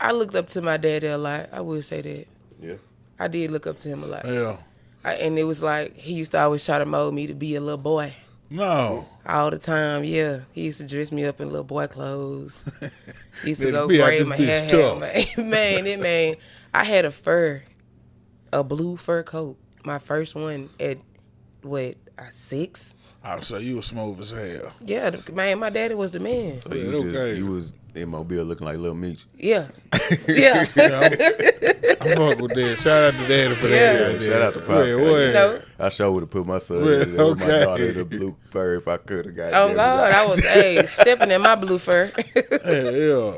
I looked up to my daddy a lot. I will say that. Yeah. I did look up to him a lot. Yeah. I, and it was like he used to always try to mold me to be a little boy No. all the time. Yeah, he used to dress me up in little boy clothes. He used to Man, go be out braid this my bitch hair. tough. Man, man, it man. I had a fur, a blue fur coat. My first one at what uh, six? I say you were smooth as hell. Yeah, the- man. My daddy was the man. So you Yeah, just okay. you was in Mobile looking like Lil Meech. Yeah, yeah. I fuck with that. Shout out to Daddy for Yeah, that. shout out to Pop. Yeah, what? You know, I sure would have put my son Well, in there with my okay. daughter in the blue fur if I could have got oh God, I was hey stepping in my blue fur. Yeah, yeah.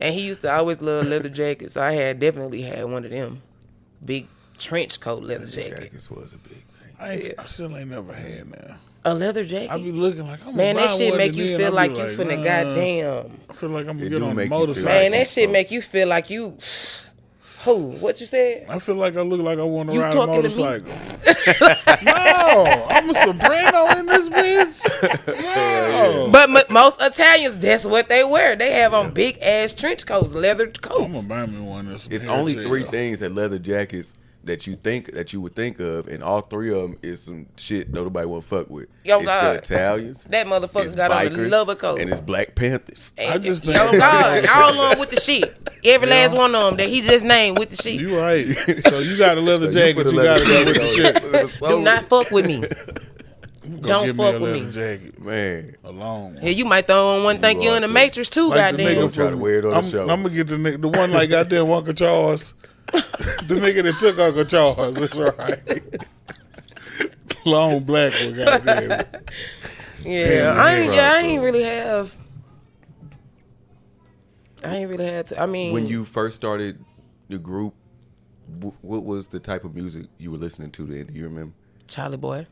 And he used to always love leather jackets. So I had definitely had one of them big trench coat leather jacket. Jackets was a big thing. I, ain't, I still ain't never had now. A leather I jacket. be looking like I'm Man, gonna that buy shit one make and you then feel I be like you finna nah, goddamn. I feel like I'm gonna It get do on make a you feel motorcycle. like- Man, that shit make you feel like you who? What you said? I feel like I look like I want to You ride a talking to me? motorcycle. no, I'm a soprano in this bitch. No. But m- most Italians, that's what they wear. They have on big ass trench coats, leather I'm gonna coats. buy me one. That's It's hair only gel. three things that leather jackets that you think that you would think of, and all three of them is some shit nobody want to fuck with. Yo, it's God. the Italians. That motherfucker it's got on a bikers, leather coat. and it's Black Panthers. And- I just and- think- oh God, all on with the shit. Every last one of them that he just named with the shit. You right. So you got a leather So jacket. put a You, leather gotta go with the jacket shit. on, you put a Do soul- not fuck with me. Go Don't fuck get me a with leather me. jacket. man. Alone. Yeah, you might throw on one thing You you in are the too. matrix too, goddamn. nigga- try to wear it on the I'm, show. I'm gonna get the nigga, the one like goddamn Uncle Charles, the nigga that took Uncle Charles. That's right. Long black one, goddamn. Yeah, Yeah, I ain't. right, Yeah, I bro. ain't really have. I ain't really had to. I mean, When you first started the group, wh- what was the type of music you were listening to then? Do you remember? Charlie Boy,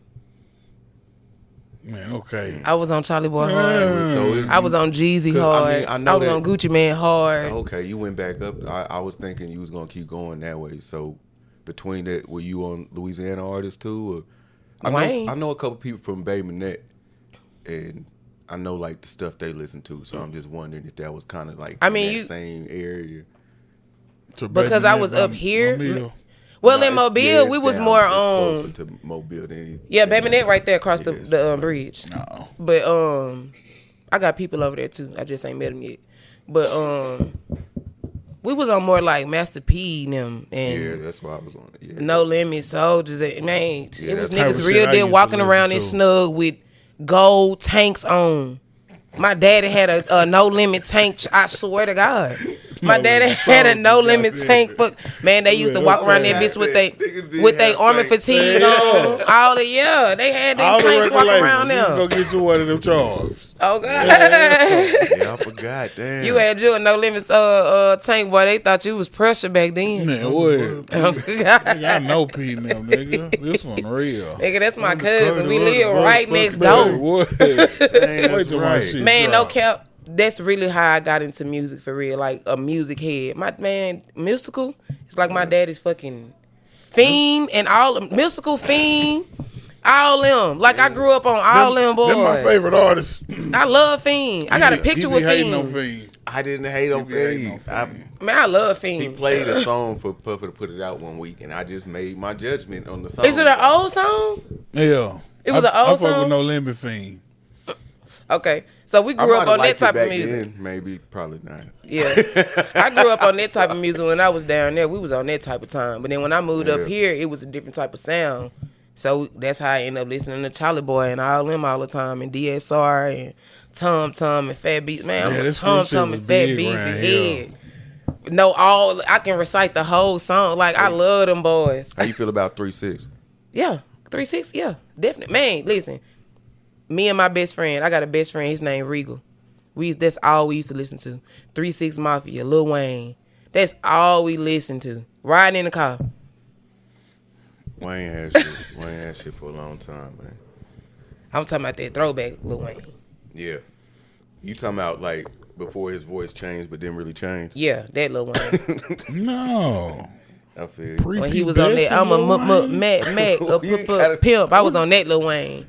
Man, okay. I was on Charlie Boy hard. So it's- Mm. I was on Jeezy 'Cause, I hard. I, mean, I know was that- Oh, on Gucci Man hard. Okay, you went back up. I, I was thinking you was gonna keep going that way. So between that, were you on Louisiana artists too? Or I Wayne. know I know a couple people from Bay Minette, and I know like the stuff they listen to. So I'm just wondering if that was kind of like I in mean, that you- same area. To Because Bethany I was by- up here. by Mill. Well, Nah, in it's- Mobile, yeah, it's we was down- more it's on. closer to Mobile than any- Yeah, baby, that right there across the Yes. the um, bridge. No. But um, I got people over there too. I just ain't met them yet. But um, we was on more like Master P and them and. Yeah, that's why I was on it. Yeah. No limit soldiers. and- Man, Yeah, it was that's the type niggas real of shit I used dead to walking listen around to. in snug with gold tanks on. My daddy had a, a no limit tank. I swear to God, my No daddy limit had a soldiers, no limit goddamn. tank. Fuck, man, they used to Man, walk okay. around that bitch with they Niggas did with they have army tanks. fatigue Yeah. on. All the yeah, they had them All the tanks record walking labels. around you can Go them. get you one of them Charles. Oh God. yeah, I forgot. Damn, You had you a no limits uh, uh tank boy. They thought you was pressure back then. Man, what? Oh, God. Nigga, I know Pete and them, nigga. This one real. Nigga, that's my cousin. We What the live fuck, right fuck, next man? door. What? Damn, Wait that's till my right. shit Man, no drop. cap. That's really how I got into music for real. Like a music head. My man, mystical. It's like my daddy's fucking fiend and all mystical fiend. All them. Like I grew up on all them, boys. They're my favorite artists. I love fiend. I got a He be- he picture be with hating fiend. on Fiend. I didn't hate on He be hating on Fetty. I- Fiend. Man, I love He fiend. played a song for Puffer to put it out one week, and I just made my judgment on the song. Is it an old song? Yeah. It was I, an old I fuck song? with no limit fiend. Okay, so we I grew up might've on that liked it type of back music. then, maybe, probably not. Yeah. I grew up on that type of music when I was down there. We was on that type of time. But then when I moved Yeah. up here, it was a different type of sound. So that's how I ended up listening to Charlie Boy and all them all the time and DSR and Tom Tom and Fat Beats. Man, Yeah, I'm a this Tom whole shit Tom was and Fat big Beats and around head. No, all I can recite the whole song. Like I love them boys. How you feel about Three Six? Yeah, three six. Yeah, definitely. Man, listen. Me and my best friend. I got a best friend. His name Regal. We used- that's all we used to listen to. Three Six Mafia, Lil Wayne. That's all we listened to. Riding in the car. Wayne had shit. Wayne had shit for a long time, man. I'm talking about that throwback Lil Wayne. Yeah. You talking about like before his voice changed, but didn't really change? Yeah, that Lil Wayne. No. I feel. you. When he was on that, I'm a m- m- Mac Mac a You p- gotta- p- pimp. I was on that Lil Wayne.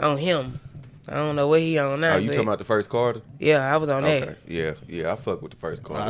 On him. I don't know what he on now. Are Oh, you but talking about the first Carter? yeah, I was on that. Okay. Yeah, yeah. I fuck with the first Carter.